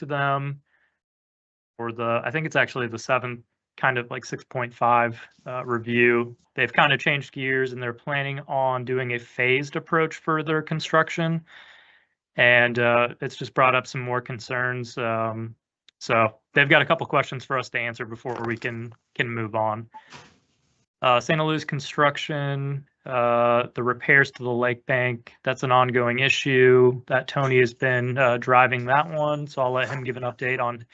to them. Or the, I think it's actually the seventh, kind of like six point five uh, review. They've kind of changed gears and they're planning on doing a phased approach for their construction. And uh, it's just brought up some more concerns. Um, so they've got a couple questions for us to answer before we can can move on. Uh, Santa Luz construction, uh, the repairs to the lake bank, that's an ongoing issue that Tony has been, uh, driving that one. So I'll let him give an update on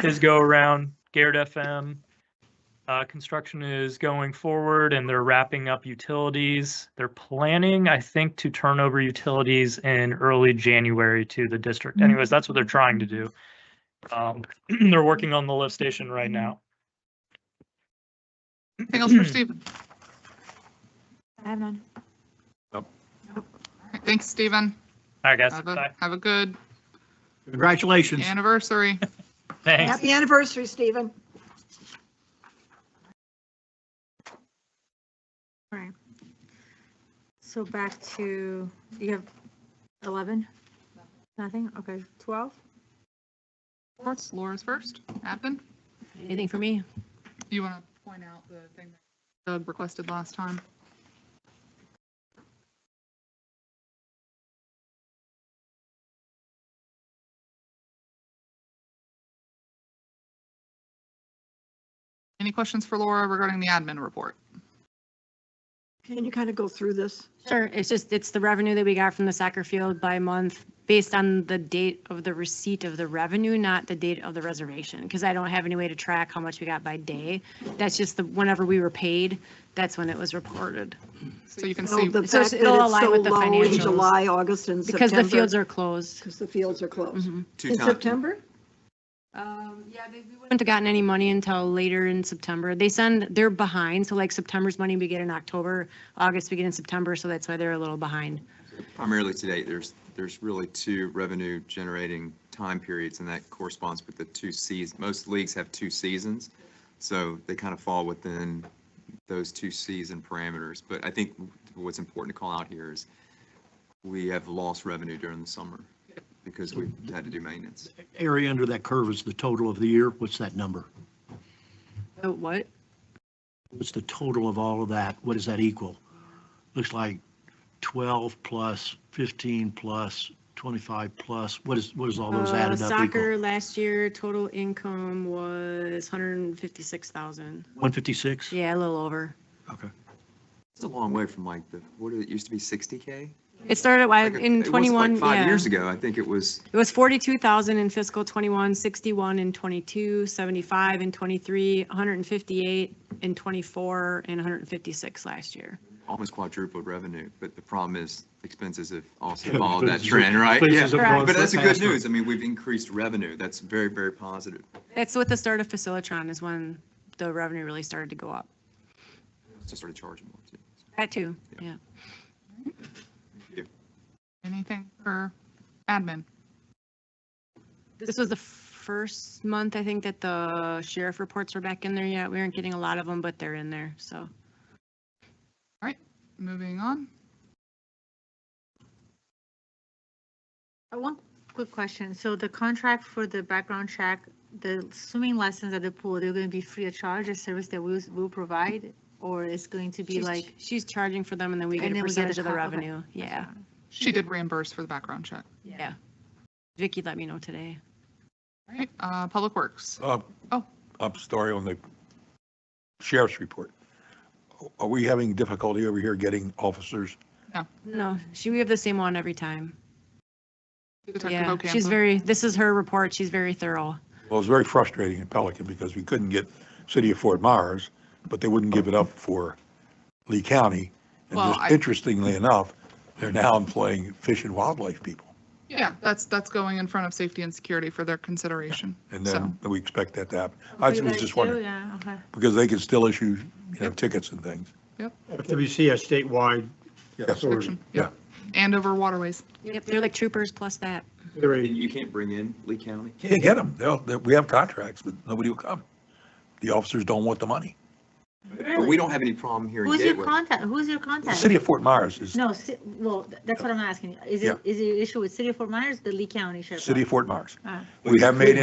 his go around. Garrett FM. Uh, construction is going forward and they're wrapping up utilities. They're planning, I think, to turn over utilities in early January to the district. Anyways, that's what they're trying to do. Um, they're working on the lift station right now. Anything else for Stephen? Mm. I have none. All right, Thanks, Stephen. All right, guys. Have Bye. a, have a good Congratulations. anniversary. Thanks. Happy anniversary, Stephen. So back to, you have 11? Nothing? Okay, 12? Reports, Laura's first. Admin, Anything for me? you want to point out the thing that Doug requested last time? Any questions for Laura regarding the admin report? Can you kind of go through this? Sure, it's just, it's the revenue that we got from the soccer field by month based on the date of the receipt of the revenue, not the date of the reservation, because I don't have any way to track how much we got by day. That's just the, whenever we were paid, that's when it was reported. So you can Oh, see, the So fact that it's it'll align so with the low in financials. July, August, and September. Because the fields are closed. Because the fields are closed. Mhm. Two In times. September? Um, yeah, they, we wouldn't have gotten any money until later in September. They send, they're behind, so like September's money we get in October, August we get in September, so that's why they're a little behind. Primarily today, there's, there's really two revenue generating time periods and that corresponds with the two seasons. Most leagues have two seasons. So they kind of fall within those two season parameters. But I think what's important to call out here is we have lost revenue during the summer because we've had to do maintenance. Area under that curve is the total of the year. What's that number? So What? What's the total of all of that? What does that equal? Looks like 12 plus 15 plus 25 plus, what is, what is all those Uh, added up equal? Soccer last year, total income was 156,000. 156? Yeah, a little over. Okay. It's a long way from like the, what did it used to be, 60K? It started Like, wi- it in wasn't like 21, Five yeah. years ago, I think it was It was 42,000 in fiscal 21, 61 in 22, 75 in 23, 158 in 24, and 156 last year. almost quadrupled revenue, but the problem is expenses have also Yeah, followed that expenses- trend, right? Yeah, expenses have gone But that's so the good fast. news. I mean, we've increased revenue. That's very, very positive. That's with the start of Facilitron is when the revenue really started to go up. Just started charging more too. That too, yeah. anything for admin? This was the first month, I think, that the sheriff reports were back in there yet. We aren't getting a lot of them, but they're in there, so. Moving on. I want Uh, quick question. So the contract for the background check, the swimming lessons at the pool, they're going to be free of charge, a service that we'll, we'll provide? Or it's going to be She's- like? She's charging for them and then we get And a then we get a percentage of the cut, okay. revenue. Yeah, She did reimburse for the background check. yeah. Vicky let me know today. All right, uh, Public Works. Up, Oh. up story on the sheriff's report. Are we having difficulty over here getting officers? No, she, we have the same one every time. Detective Yeah, she's Ocampo. very, this is her report. She's very thorough. Well, it was very frustrating in Pelican because we couldn't get city of Fort Myers, but they wouldn't give it up for Lee County. And Well, I- just interestingly enough, they're now employing fish and wildlife people. Yeah, that's, that's going in front of safety and security for their consideration. And So, then we expect that to happen. I was just wondering, Yeah, okay. because they can still issue, you know, tickets and things. FWC has statewide Yes. restriction, yeah. Yeah. Andover waterways. Yep, they're like troopers plus that. They're a- You can't bring in Lee County? Can't get them. They'll, they- we have contracts, but nobody will come. The officers don't want the money. But we don't have any problem here in Who's your Gateway. contact, who's your The contact? city of Fort Myers is No, ci- well, th- that's what I'm asking. Is Yeah. it, is it issue with City of Fort Myers, the Lee County Sheriff? city of Fort Myers. Ah. We have made